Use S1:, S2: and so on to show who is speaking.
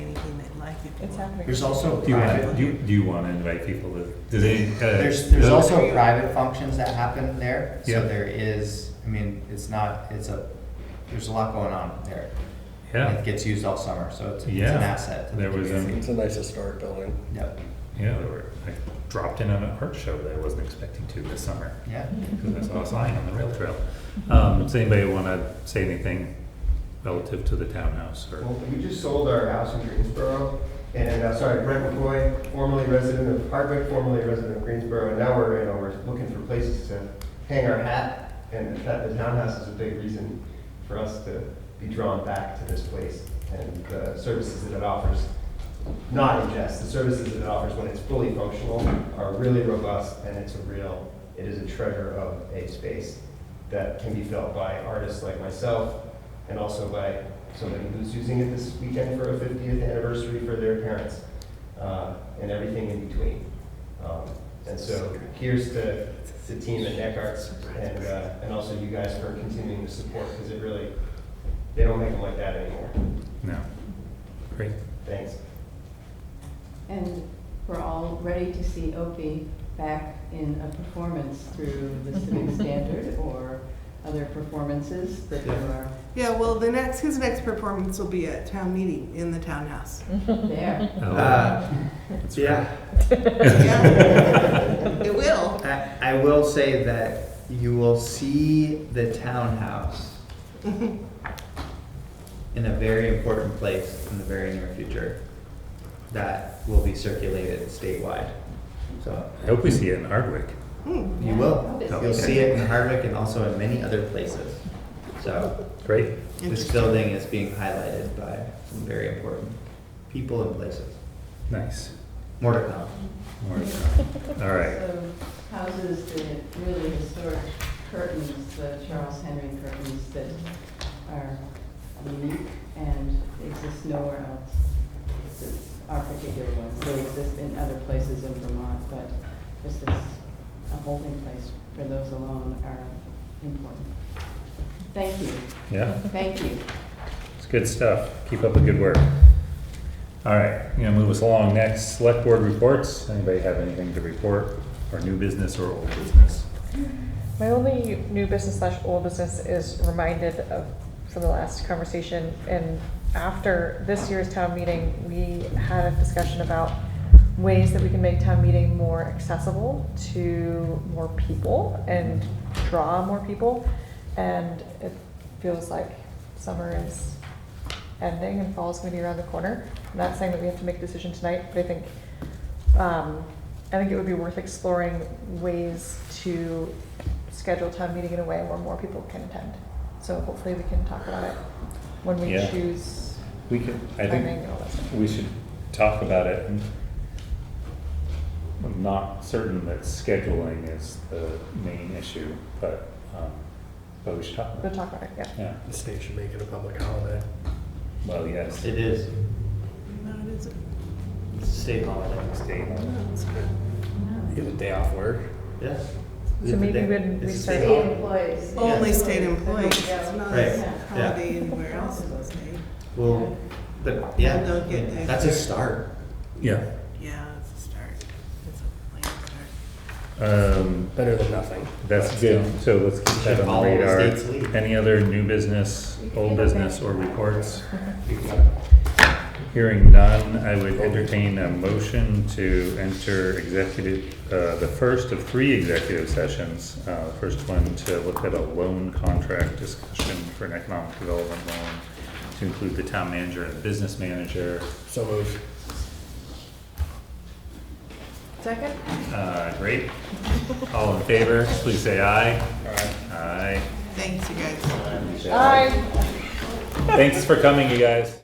S1: It's happening.
S2: There's also
S3: Do you
S2: private,
S3: want, do you, do you want to invite people to, does any? uh,
S2: there's, there's
S3: uh,
S2: also private functions that happen there.
S3: Yeah.
S2: So there is, I mean, it's not, it's a, there's a lot going on there. And
S3: Yeah,
S2: It gets used all summer, so it's, it's an
S3: Yeah.
S2: asset to the
S3: There was, um,
S2: community.
S4: It's a nice historic building.
S2: Yep,
S3: yeah, there were, I dropped in on an art show that I wasn't expecting to this summer.
S2: yeah.
S3: because I saw a sign on the rail trail. Um, does anybody want to say anything relative to the townhouse or?
S5: Well, we just sold our house in Greensboro, and, uh, sorry, Brent McCoy, formerly resident of Hardwick, formerly resident of Greensboro, and now we're, you know, we're looking for places to hang our hat, and that, the townhouse is a big reason for us to be drawn back to this place and the services that it offers. Not in jest, the services that it offers when it's fully functional are really robust, and it's a real, it is a treasure of a space that can be felt by artists like myself, and also by somebody who's using it this weekend for a 50th anniversary for their parents, uh, and everything in between. Um, And so here's to the team at Neck Arts and, uh, and also you guys for continuing to support, because it really, they don't make them like that anymore.
S3: No. Great.
S5: Thanks.
S6: And we're all ready to see Opie back in a performance through the Civic Standard or other performances that you are
S7: Yeah, well, the next, his next performance will be at town meeting in the townhouse.
S6: there.
S3: Oh,
S8: Uh, Yeah,
S7: Yeah. It will.
S8: I, I will say that you will see the townhouse in a very important place in the very near future that will be circulated statewide. So
S3: I hope we see it in Hardwick.
S7: Hmm.
S8: you will. You'll see it in Hardwick and also in many other places. So
S3: Great.
S8: this
S7: Interesting.
S8: building is being highlighted by some very important people and places.
S3: Nice.
S8: More to come.
S3: More to come. All right.
S6: So houses, the really historic curtains, the Charles Henry curtains that are unique and exist nowhere else. This is Our particular ones, they exist in other places in Vermont, but this is a holding place for those alone are important. Thank you,
S3: Yeah,
S6: thank you.
S3: it's good stuff. Keep up the good work. All right, I'm gonna move us along. Next, select board reports. Anybody have anything to report or new business or old business?
S1: My only new business slash old business is reminded of, from the last conversation, and after this year's town meeting, we had a discussion about ways that we can make town meeting more accessible to more people and draw more people. And it feels like summer is ending and fall's gonna be around the corner. I'm not saying that we have to make a decision tonight, but I think um, I think it would be worth exploring ways to schedule town meeting in a way where more people can attend. So hopefully we can talk about it when we
S3: Yeah.
S1: choose
S3: We could, I
S1: timing
S3: think
S1: and all that stuff.
S3: we should talk about it. and I'm not certain that scheduling is the main issue, but, um, but we should talk
S1: We'll
S3: about it.
S1: talk about it, yeah.
S3: Yeah,
S4: The state should make it a public holiday.
S3: well, yes,
S8: It is
S7: No, it isn't.
S8: a state holiday.
S3: state,
S7: No, it's good.
S4: You have a day off work.
S8: Yes.
S1: So maybe when we
S8: It's a
S1: start-
S8: state holiday.
S6: employees.
S7: Only state employees, it's not
S8: Right,
S7: a
S8: yeah.
S7: holiday anywhere else in the state.
S8: Well, but yeah,
S7: And they'll get that.
S8: that's a start.
S3: yeah,
S7: Yeah, it's a start. It's a late start.
S3: um,
S4: Better than nothing.
S3: that's good, so let's keep that
S8: Should
S3: on
S8: follow
S3: the
S8: the
S3: radar.
S8: state's lead.
S3: Any other new business, old business, or reports? Hearing none, I would entertain a motion to enter executive, uh, the first of three executive sessions. Uh, the First one to look at a loan contract discussion for an economic development loan to include the town manager and business manager.
S4: So moved.
S1: Second?
S3: Uh, Great. All in favor, please say aye. Aye.
S7: Thanks, you guys.
S1: Aye.
S3: Aye. Thanks for coming, you guys.